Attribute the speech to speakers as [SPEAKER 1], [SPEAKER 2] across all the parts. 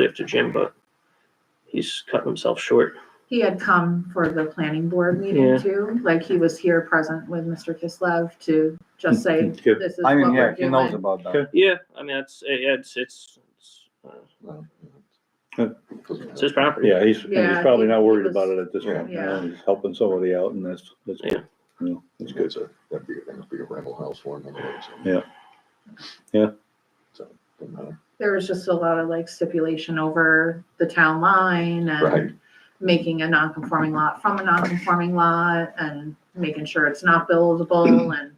[SPEAKER 1] give to Jim, but he's cutting himself short.
[SPEAKER 2] He had come for the planning board
[SPEAKER 1] Yeah.
[SPEAKER 2] meeting too, like he was here present with Mr. Kislev to just say,
[SPEAKER 3] Good.
[SPEAKER 2] this is
[SPEAKER 4] I
[SPEAKER 2] what
[SPEAKER 4] mean, yeah,
[SPEAKER 2] we're
[SPEAKER 4] he knows
[SPEAKER 2] doing.
[SPEAKER 4] about
[SPEAKER 3] Okay.
[SPEAKER 4] that.
[SPEAKER 1] Yeah, I mean, it's, it's, it's, it's, uh,
[SPEAKER 5] No,
[SPEAKER 3] Good.
[SPEAKER 1] it's his property.
[SPEAKER 3] Yeah, he's, and
[SPEAKER 2] Yeah,
[SPEAKER 3] he's probably
[SPEAKER 2] he-
[SPEAKER 3] not worried
[SPEAKER 2] he was-
[SPEAKER 3] about it at this point. you know, He's helping somebody out and that's, that's,
[SPEAKER 1] Yeah.
[SPEAKER 3] you know,
[SPEAKER 5] It's good, so that'd be, that'd be a rental house for him. anyway, so.
[SPEAKER 3] Yeah. Yeah.
[SPEAKER 5] So, doesn't matter.
[SPEAKER 2] There was just a lot of like stipulation over the town line
[SPEAKER 5] Right.
[SPEAKER 2] and making a non-conforming lot from a non-conforming lot and making sure it's not buildable and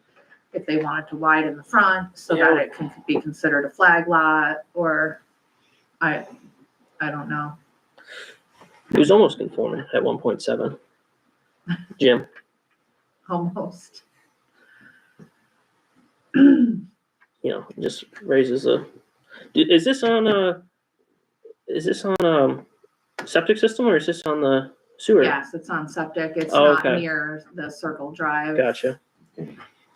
[SPEAKER 2] if they wanted to widen the front so that
[SPEAKER 1] Yeah.
[SPEAKER 2] it can be considered a flag lot or I, I don't know.
[SPEAKER 1] He was almost conforming at one point seven. Jim,
[SPEAKER 2] almost.
[SPEAKER 1] you know, just raises a, D- is this on a, is this on a septic system or is this on the sewer?
[SPEAKER 2] Yes, it's on septic. It's
[SPEAKER 1] Oh,
[SPEAKER 2] not
[SPEAKER 1] okay.
[SPEAKER 2] near the Circle Drive
[SPEAKER 1] Gotcha.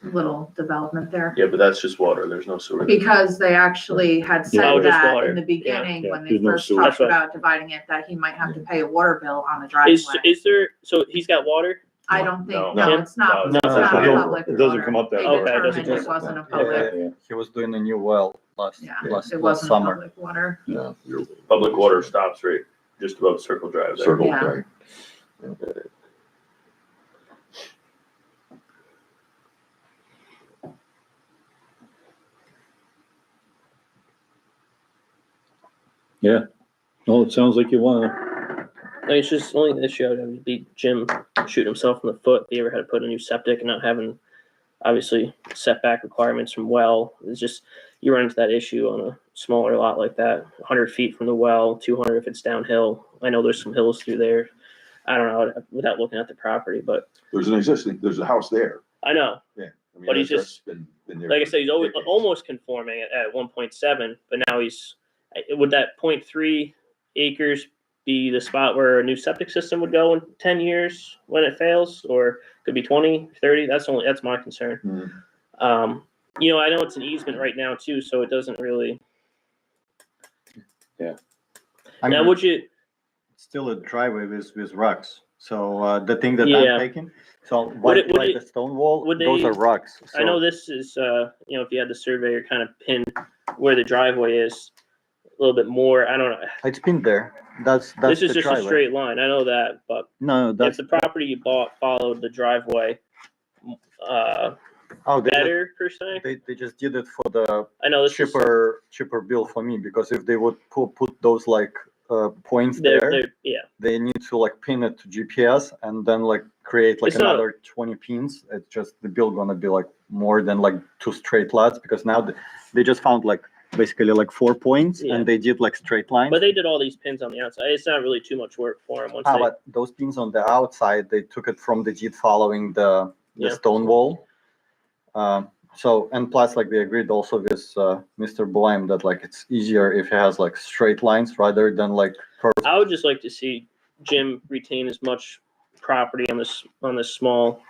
[SPEAKER 2] little development there.
[SPEAKER 6] Yeah, but that's just water. There's no sewer.
[SPEAKER 2] Because they actually had
[SPEAKER 1] Oh,
[SPEAKER 2] said
[SPEAKER 1] just
[SPEAKER 2] that
[SPEAKER 1] water.
[SPEAKER 2] in the beginning
[SPEAKER 3] Yeah,
[SPEAKER 2] when they
[SPEAKER 3] there's no
[SPEAKER 2] first
[SPEAKER 3] sewer.
[SPEAKER 2] talked
[SPEAKER 1] That's right.
[SPEAKER 2] about dividing it, that he might have to pay a water bill on the
[SPEAKER 1] Is,
[SPEAKER 2] driveway.
[SPEAKER 1] is there, so he's got water?
[SPEAKER 2] I don't
[SPEAKER 6] No,
[SPEAKER 2] think, no,
[SPEAKER 1] no,
[SPEAKER 2] it's not,
[SPEAKER 6] no,
[SPEAKER 2] it's
[SPEAKER 3] it's
[SPEAKER 2] not
[SPEAKER 3] not.
[SPEAKER 2] public
[SPEAKER 3] It doesn't
[SPEAKER 2] water.
[SPEAKER 3] come up that
[SPEAKER 2] They
[SPEAKER 1] far. Okay, it doesn't
[SPEAKER 2] determined it
[SPEAKER 1] come
[SPEAKER 2] wasn't a
[SPEAKER 5] up that-
[SPEAKER 2] public,
[SPEAKER 3] yeah.
[SPEAKER 4] He was doing a new well last,
[SPEAKER 2] yeah,
[SPEAKER 4] last,
[SPEAKER 2] it
[SPEAKER 4] last
[SPEAKER 2] wasn't a
[SPEAKER 4] summer.
[SPEAKER 2] public water.
[SPEAKER 5] No, you're
[SPEAKER 6] Public water stops right just above Circle Drive. there.
[SPEAKER 5] circle,
[SPEAKER 2] Yeah.
[SPEAKER 5] right?
[SPEAKER 3] no, it sounds like you wanna,
[SPEAKER 1] I mean, it's just the only issue I would have would be Jim shooting himself in the foot. If he ever had to put a new septic and not having, obviously, setback requirements from well. It's just you run into that issue on a smaller lot like that. 100 feet from the well, 200 if it's downhill. I know there's some hills through there. I don't know without looking at the property, but
[SPEAKER 5] There's an existing, there's a house there.
[SPEAKER 1] I know,
[SPEAKER 5] I mean,
[SPEAKER 1] But he's
[SPEAKER 5] that's-
[SPEAKER 1] just-
[SPEAKER 5] that's been- been there
[SPEAKER 1] like I
[SPEAKER 5] for
[SPEAKER 1] said, he's always
[SPEAKER 5] decades.
[SPEAKER 1] almost conforming at, at 1.7, but now he's eh, would that 0.3 acres be the spot where a new septic system would go in 10 years when it fails, or could be 20, 30? That's only that's my concern.
[SPEAKER 5] Hmm.
[SPEAKER 1] Um, you know, I know it's an easement right now too, so it doesn't really.
[SPEAKER 4] I
[SPEAKER 1] now,
[SPEAKER 4] mean,
[SPEAKER 1] would you?
[SPEAKER 4] still a driveway with, with rocks. So, uh, the thing that
[SPEAKER 1] Yeah.
[SPEAKER 4] I'm taking, so like,
[SPEAKER 1] it- would
[SPEAKER 4] like
[SPEAKER 1] it-
[SPEAKER 4] the stone wall,
[SPEAKER 1] would
[SPEAKER 4] those
[SPEAKER 1] they-
[SPEAKER 4] are rocks.
[SPEAKER 1] I know
[SPEAKER 4] So
[SPEAKER 1] this is, uh, you know, if you had the surveyor kind of pin where the driveway is a little bit more. I don't know.
[SPEAKER 4] It's been there. That's, that's
[SPEAKER 1] This is
[SPEAKER 4] the
[SPEAKER 1] just a
[SPEAKER 4] driveway.
[SPEAKER 1] straight line. I know that, but
[SPEAKER 4] No,
[SPEAKER 1] if
[SPEAKER 4] that's,
[SPEAKER 1] the property you bought followed the driveway uh,
[SPEAKER 4] oh, they, just-
[SPEAKER 1] better per se.
[SPEAKER 4] they, they just did it for the
[SPEAKER 1] I know this is
[SPEAKER 4] cheaper, cheaper bill for me, because if they would put, put those like, uh, points
[SPEAKER 1] they're,
[SPEAKER 4] there,
[SPEAKER 1] they're- yeah.
[SPEAKER 4] they need to like pin it to GPS and then like create like
[SPEAKER 1] It's not-
[SPEAKER 4] another 20 pins. It's just the bill gonna be like more than like two straight lines because now th- they just found like basically like four points
[SPEAKER 1] Yeah.
[SPEAKER 4] and they did like straight lines.
[SPEAKER 1] But they did all these pins on the outside. It's not really too much work for them once
[SPEAKER 4] ah,
[SPEAKER 1] they.
[SPEAKER 4] but those pins on the outside, they took it from the JIT following the, the
[SPEAKER 1] Yeah.
[SPEAKER 4] stone wall. Um, so, and plus like they agreed also with uh, Mr. Boehm that like it's easier if he has like straight lines rather than like curves.
[SPEAKER 1] I would just like to see Jim retain as much property on this on this small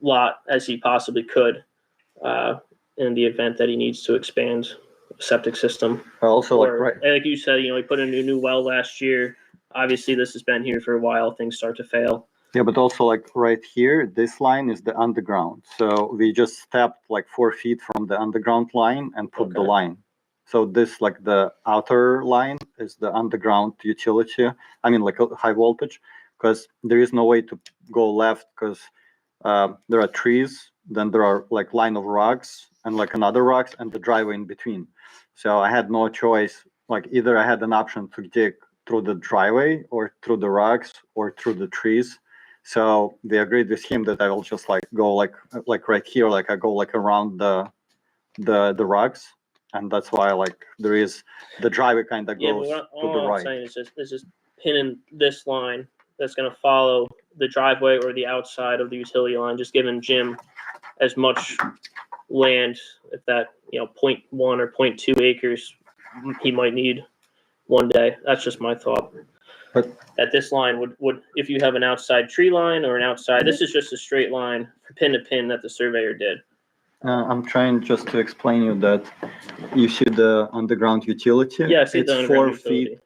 [SPEAKER 1] lot as he possibly could, uh, in the event that he needs to expand septic system.
[SPEAKER 4] Also like
[SPEAKER 1] Or,
[SPEAKER 4] right.
[SPEAKER 1] and like you said, you know, he put in a new well last year. Obviously, this has been here for a while. Things start to fail.
[SPEAKER 4] Yeah, but also like right here, this line is the underground. So we just stepped like four feet from the underground line and put the
[SPEAKER 1] Okay.
[SPEAKER 4] line. So this like the outer line is the underground utility. I mean like a high voltage, because there is no way to go left because uh, there are trees. Then there are like line of rocks and like another rocks and the driveway in between. So I had no choice. Like either I had an option to dig through the driveway or through the rocks or through the trees. So they agreed with him that I will just like go like like right here, like I go like around the the the rocks, and that's why like there is the driveway kind of
[SPEAKER 1] Yeah, but
[SPEAKER 4] goes
[SPEAKER 1] what-
[SPEAKER 4] to the
[SPEAKER 1] all I'm
[SPEAKER 4] right.
[SPEAKER 1] saying is just, is just pinning this line that's gonna follow the driveway or the outside of the utility line, just giving Jim as much land at that, you know, point one or point two acres he might need one day. That's just my thought.
[SPEAKER 4] But-
[SPEAKER 1] That this line would, would, if you have an outside tree line or an outside, this is just a straight line, pin to pin that the surveyor did.
[SPEAKER 4] Uh, I'm trying just to explain you that you see the underground utility.
[SPEAKER 1] Yeah, I see
[SPEAKER 4] it's
[SPEAKER 1] the underground
[SPEAKER 4] four
[SPEAKER 1] utility.
[SPEAKER 4] feet